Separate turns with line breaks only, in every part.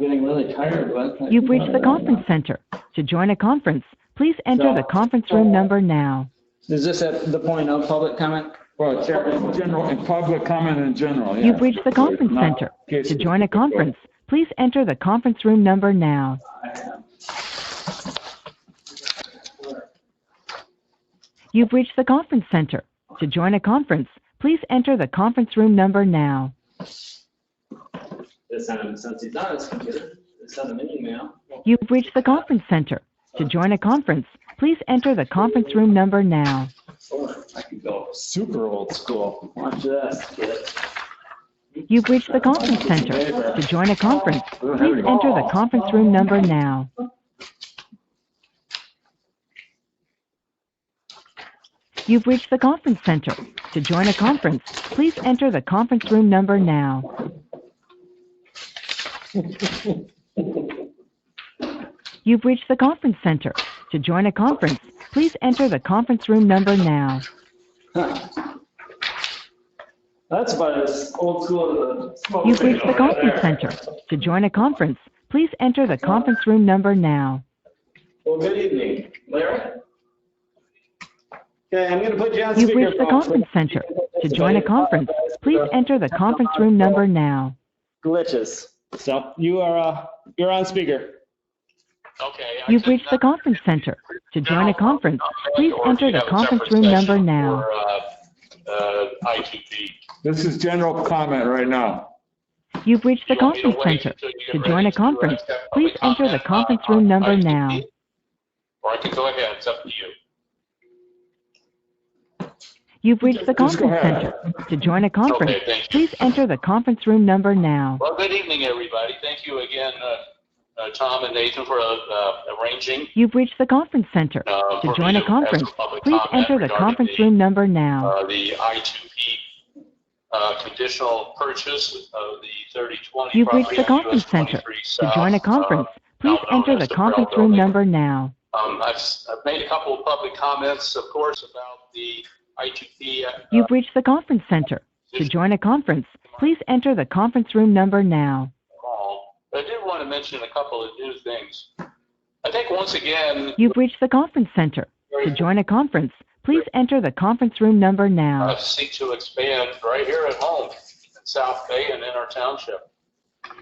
really tired, but. I-
You've reached the conference center. To join a conference, please enter the conference room number now.
Is this at the point of public comment?
Well, it's in general, in public comment in general, yes.
You've reached the conference
Not
center.
case
To join a
specific.
conference, please enter the conference room number now. You've reached the conference center. To join a conference, please enter the conference room number now.
This time, since he's not on his computer, send him an email.
You've reached the conference center. To join a conference, please enter the conference room number now.
Or I could go,
Super old school.
watch this, kid.
You've reached the conference center. To join a conference, please enter the conference room number now. You've reached the conference center. To join a conference, please enter the conference room number now. You've reached the conference center. To join a conference, please enter the conference room number now.
That's about as old school as the.
You've reached the conference center. To join a conference, please enter the conference room number now.
Well, good evening, Larry. Okay, I'm gonna put you on speakerphone. Uh,
You've reached the conference center. To join a conference, please enter the conference room number now.
Glitches. So you are, uh, you're on speaker.
Okay. I
You've
can-
reached the conference center. To join a conference, please
Or if
enter
you
the
have a
conference
separate
room
session
number now.
for, uh, uh, ITP.
This is general comment right now.
You've reached the
You want me to
conference
wait
center.
until you get
To
ready
join a
do
conference,
separate
please
comment
enter the
on-
conference
on
room number
ITP?
now.
Or I can go ahead, it's up to you.
You've reached the
Just go
conference
ahead.
center. To join a conference,
Okay, thank you.
please enter the conference room number now.
Well, good evening, everybody. Thank you again, uh, uh, Tom and Nathan for uh, arranging.
You've reached the conference center.
uh,
To
for
join a
me have
conference,
public
please
comment
enter the
regarding
conference
the,
room number now.
uh, The I2P uh, conditional purchase of the 3020.
You've reached
property
the
on US
conference center.
23
To
South,
join a
uh,
conference, please
now known
enter the
as the
conference
Brown
room
Building.
number now.
Um, I've, I've made a couple of public comments, of course, about the ITP. uh,
You've reached the conference center. To join a conference, please enter the conference room number now.
call. But I did want to mention a couple of new things. I think once again,
You've reached the conference center. To join a conference, please enter the conference room number
uh,
now.
seek to expand right here at home in South Bay and in our township.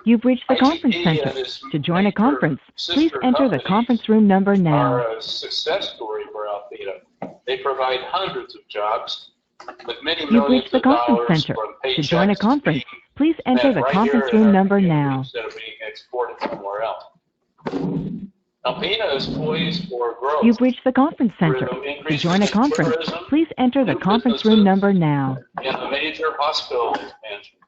You've reached the
ITP
conference
and
center.
its
To join a
major
conference, please
sister uh,
enter the
companies
conference room number now.
Are a success story for Altheta. They provide hundreds of jobs with many
You've
millions
reached the
of
conference
dollars
center.
from
To join a
paychecks
conference,
being
please enter
spent
the
right
conference
here uh, in
room
our
number
community
now.
Instead of being exported somewhere else. Alpena is poised for growth.
You've reached the conference center. To
Through increases
join a
in
conference,
tourism,
please enter the conference room number now.
and the major hospital expansion.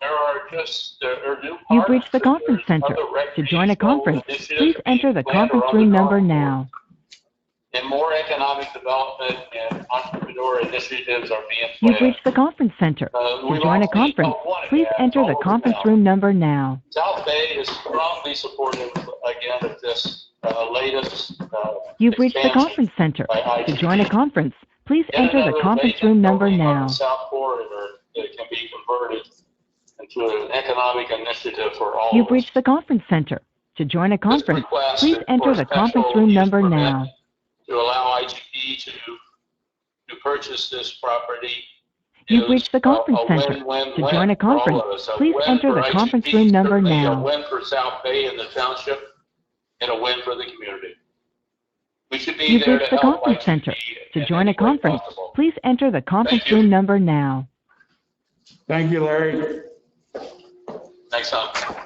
There are just, there are new.
You've
parks
reached the
and
conference
there's
center.
other
To join a
recreational
conference,
initiatives
please
being
enter the
planned
conference
around
room
the
number
golf
now.
course. And more economic development and entrepreneur initiatives are being
You've
planned.
reached the conference center.
Uh,
To
we've
join a
already
conference,
got one of
please
that
enter the
over
conference
now.
room number now.
South Bay is strongly supportive again of this uh, latest. uh,
You've reached the
expansion.
conference center.
by
To
ITP.
join a conference, please
Yet
enter the
another
conference
vacant
room number
building on the
now.
South corridor that can be converted into an economic initiative for all.
You've
of us.
reached the conference center. To join a
This
conference,
request
please
is
enter
for
the
special
conference room
use
number
permit
now.
To allow IGP to, to purchase this property.
You've
is uh,
reached the
a-
conference
a
center.
win-win-win
To join a
for all of
conference,
us. A
please
win
enter
for
the conference
IGP,
room number
certainly
now.
A win for South Bay and the township, and a win for the community. We should be
You've
there to
reached the
help
conference center.
IGP
To
in
join
any
a
way
conference,
possible.
please enter the conference
you.
room number now.
Thank you, Larry.
Thanks, Tom.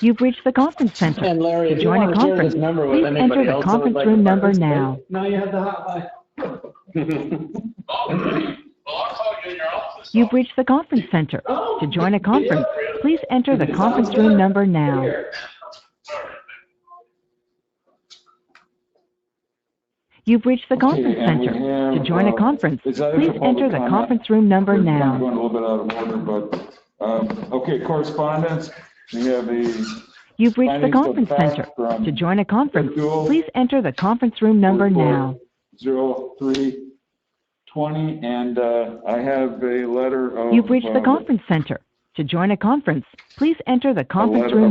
You've reached the conference center.
And Larry,
To
if you
join a
want to share
conference,
this number
please enter
with anybody
the
else that
conference
would like to
room number
participate,
now.
Now you have the hotline.
Oh, Well, I'll call you in your office.
You've reached the conference center. To join a conference, please enter the conference room number now.
Here.
You've reached the conference
and we
center.
have,
To join a
uh,
conference,
is that it
please
for public
enter the
comment?
conference room number
We're
now.
Going a little bit out of order, but, um, okay, correspondence. We have the
You've reached the
Findings of
conference
fact
center.
from
To join a conference,
Virtual
please enter the conference room number now.
Zero three twenty, and uh, I have a letter of.
You've reached the
uh,
conference center. To join a conference, please enter the conference
letter
room
of